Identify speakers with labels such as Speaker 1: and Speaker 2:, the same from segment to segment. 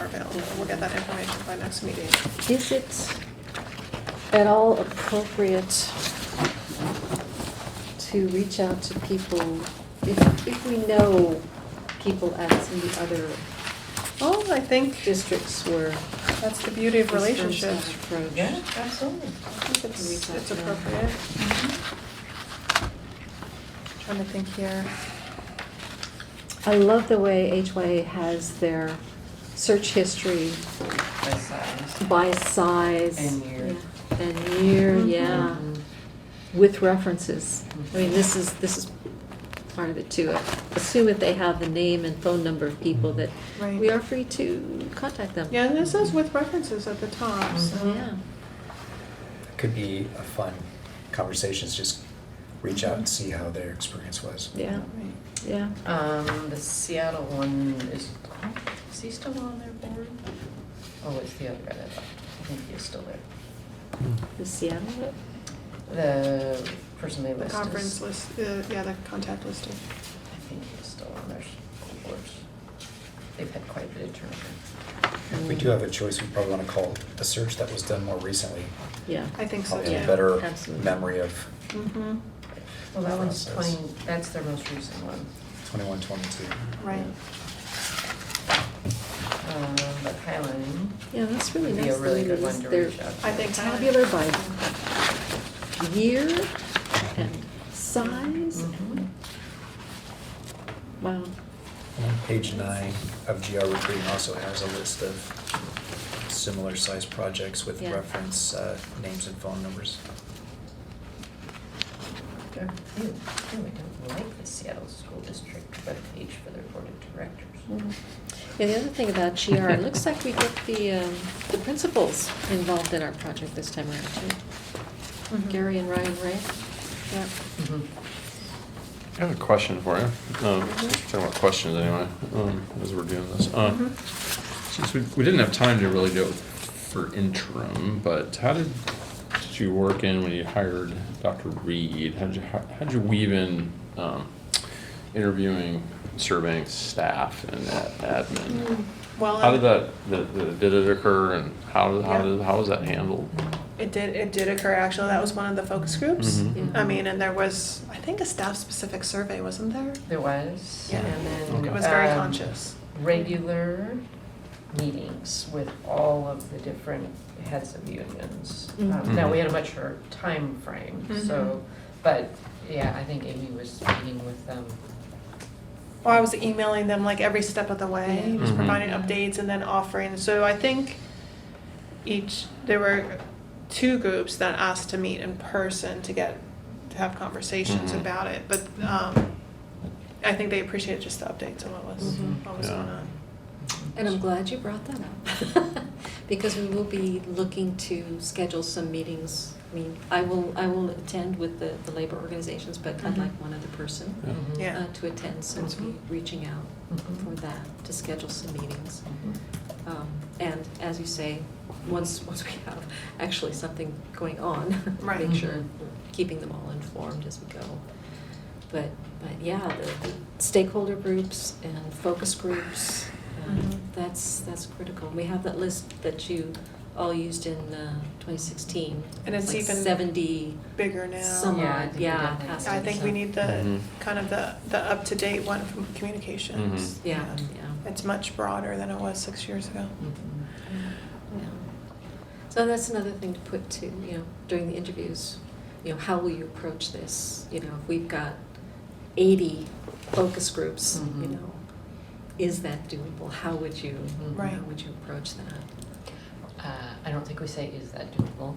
Speaker 1: are available. We'll get that information by next meeting.
Speaker 2: Is it at all appropriate to reach out to people if, if we know people at some of the other
Speaker 1: Well, Oh, I think
Speaker 2: districts where
Speaker 1: that's the beauty of relationships.
Speaker 2: Yeah.
Speaker 3: absolutely.
Speaker 2: uh,
Speaker 1: I think it's, it's appropriate. Trying to think here.
Speaker 2: I love the way HYA has their search history by size.
Speaker 3: And year. Mm-hmm.
Speaker 2: yeah, And year,
Speaker 1: Mm-hmm.
Speaker 2: yeah, with references. I mean, this is, this is part of it too. Assume if they have the name and phone number of people that
Speaker 1: Mm-hmm. Right.
Speaker 2: we are free to contact them.
Speaker 1: Yeah, Uh-huh. and this is with references at the top, so.
Speaker 2: Yeah.
Speaker 4: Could be a fun conversation, is just reach out and see how their experience was.
Speaker 2: Yeah,
Speaker 1: Right.
Speaker 2: yeah.
Speaker 3: Um, the Seattle one is, is he still on their board? Oh, it's the other guy that left. I think he's still there.
Speaker 2: The Seattle, one?
Speaker 3: The person they
Speaker 1: The
Speaker 3: listed. is-
Speaker 1: conference list, uh, yeah, the contact listing.
Speaker 3: I think he's still on their boards. They've had quite a bit of turnover.
Speaker 4: If we do have a choice, we probably want to call the search that was done more recently,
Speaker 2: yeah.
Speaker 1: I think so,
Speaker 4: probably
Speaker 1: yeah.
Speaker 4: a better
Speaker 2: Absolutely.
Speaker 4: memory of
Speaker 1: Mm-hmm,
Speaker 3: Well, that one's
Speaker 4: Process.
Speaker 3: twenty, that's their most recent one.
Speaker 4: twenty-one, twenty-two.
Speaker 1: right.
Speaker 3: Um, but Highland,
Speaker 2: Yeah, that's really
Speaker 3: Would be a
Speaker 2: nice. that
Speaker 3: really
Speaker 2: they
Speaker 3: good one
Speaker 2: list
Speaker 3: to
Speaker 2: their
Speaker 3: reach out to.
Speaker 1: I think that-
Speaker 2: Tabular by year and size.
Speaker 3: Mhm.
Speaker 2: Wow,
Speaker 4: And Page nine of GR recruiting also has a list of similar sized projects with
Speaker 2: Yeah.
Speaker 4: reference, uh, names and phone numbers.
Speaker 3: There are few, Ew, I don't like the Seattle School District, but a page for their board of directors.
Speaker 2: Mhm. Yeah, the other thing about GR, it looks like we get the, um, the principals involved in our project this time around too.
Speaker 1: Mhm.
Speaker 2: Gary and Ryan Ray.
Speaker 1: Yep.
Speaker 5: I have a question for you. Um, Talking about questions anyway, um, as we're doing this.
Speaker 1: Mm-hmm.
Speaker 5: Um, Since we, we didn't have time to really do it for interim, but how did, did you work in when you hired Dr. Reed? How'd you, hi- how'd you weave in um, interviewing, surveying staff and a- admin?
Speaker 1: Mm, Well,
Speaker 5: How did that, the- the- did it occur and how, how
Speaker 1: Yeah. Mm-hmm.
Speaker 5: did, how was that handled?
Speaker 1: It did, it did occur, actually, that was one of the focus groups.
Speaker 5: Mhm.
Speaker 1: I mean, and there was, I think a staff-specific survey, wasn't there?
Speaker 3: There was,
Speaker 1: Yeah.
Speaker 3: and then.
Speaker 5: Okay.
Speaker 1: It was very
Speaker 3: um,
Speaker 1: conscious.
Speaker 3: Regular meetings with all of the different heads of unions. Um, Now, we had a much shorter time frame, so, but, yeah, I think Amy was meeting with them.
Speaker 1: Well, I was emailing them like every step of the way,
Speaker 2: Yeah.
Speaker 1: just
Speaker 5: Mhm.
Speaker 1: providing updates and then offering. So I think each there were two groups that asked to meet in person to get to have conversations
Speaker 5: Mhm.
Speaker 1: about it. But um, I think they appreciated just the updates on what was
Speaker 3: Mhm.
Speaker 1: what was
Speaker 5: Yeah.
Speaker 1: going on.
Speaker 2: And I'm glad you brought that up, because we will be looking to schedule some meetings. I mean, I will, I will attend with the, the labor organizations, but I'd
Speaker 1: Mhm.
Speaker 2: like one other person
Speaker 5: Yeah.
Speaker 3: Mhm.
Speaker 1: Yeah.
Speaker 2: uh, to attend, so we'll be
Speaker 1: Mhm.
Speaker 2: reaching out
Speaker 3: Mhm.
Speaker 2: for that, to schedule some meetings.
Speaker 3: Mhm.
Speaker 2: Um, And as you say, once, once we have actually something going on,
Speaker 1: Right.
Speaker 2: make sure
Speaker 3: Mm-hmm.
Speaker 2: we're keeping them all informed as we go. But, but yeah, the the stakeholder groups and focus groups, um,
Speaker 1: Mhm.
Speaker 2: that's, that's critical. We have that list that you all used in uh, twenty sixteen.
Speaker 1: And it's even
Speaker 2: Seventy
Speaker 1: Bigger now.
Speaker 2: some
Speaker 3: Yeah, I
Speaker 2: odd,
Speaker 3: think we
Speaker 2: yeah.
Speaker 3: did that.
Speaker 2: has to
Speaker 1: I
Speaker 2: be
Speaker 1: think we
Speaker 2: some-
Speaker 1: need the
Speaker 5: Mhm.
Speaker 1: kind of the the up to date one from communications. Um,
Speaker 5: Mhm.
Speaker 2: Yeah, yeah. Mm-hmm.
Speaker 1: It's much broader than it was six years ago.
Speaker 3: Mhm.
Speaker 2: Yeah. So that's another thing to put to, you know, during the interviews, you know, how will you approach this? You know, if we've got eighty focus groups, you
Speaker 3: Mhm.
Speaker 2: know, is that doable? How would you,
Speaker 3: Mhm.
Speaker 1: Right.
Speaker 2: how would you approach that?
Speaker 3: Uh, I don't think we say, is that doable?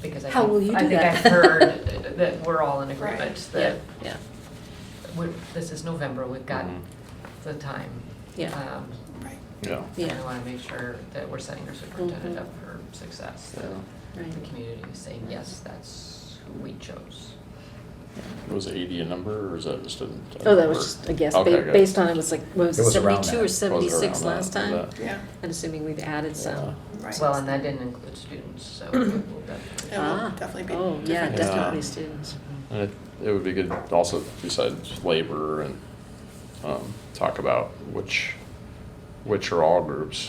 Speaker 3: Because I
Speaker 2: How will you
Speaker 3: think, I
Speaker 2: do
Speaker 3: think
Speaker 2: that?
Speaker 3: I've heard that we're all in agreement
Speaker 1: Right.
Speaker 3: that
Speaker 2: Yeah,
Speaker 3: we- this is November, we've got
Speaker 5: Mhm.
Speaker 3: the time.
Speaker 2: yeah,
Speaker 3: Um,
Speaker 1: Right.
Speaker 5: Yeah.
Speaker 2: yeah,
Speaker 3: And I want to make sure that we're setting our superintendent
Speaker 2: Mhm.
Speaker 3: up for success, that
Speaker 2: yeah, right.
Speaker 3: the community is saying, yes, that's who we chose.
Speaker 5: Was eighty a number or is that just a?
Speaker 2: Oh, that was just a guess,
Speaker 5: Okay,
Speaker 2: ba-
Speaker 5: gotcha.
Speaker 2: based on, it was like, what was
Speaker 4: It
Speaker 2: it,
Speaker 4: was around
Speaker 2: seventy-two or
Speaker 4: that.
Speaker 5: It was around
Speaker 2: seventy-six
Speaker 5: that,
Speaker 2: last time?
Speaker 5: that.
Speaker 1: Yeah.
Speaker 2: I'm assuming we've added
Speaker 5: Yeah.
Speaker 2: some.
Speaker 1: Right.
Speaker 3: Well, and that didn't include students, so it will definitely.
Speaker 1: It will
Speaker 2: Ah,
Speaker 1: definitely be
Speaker 2: Oh, yeah,
Speaker 5: different.
Speaker 2: definitely
Speaker 5: Yeah.
Speaker 2: students.
Speaker 5: And it, it would be good also besides labor and um, talk about which which are all groups.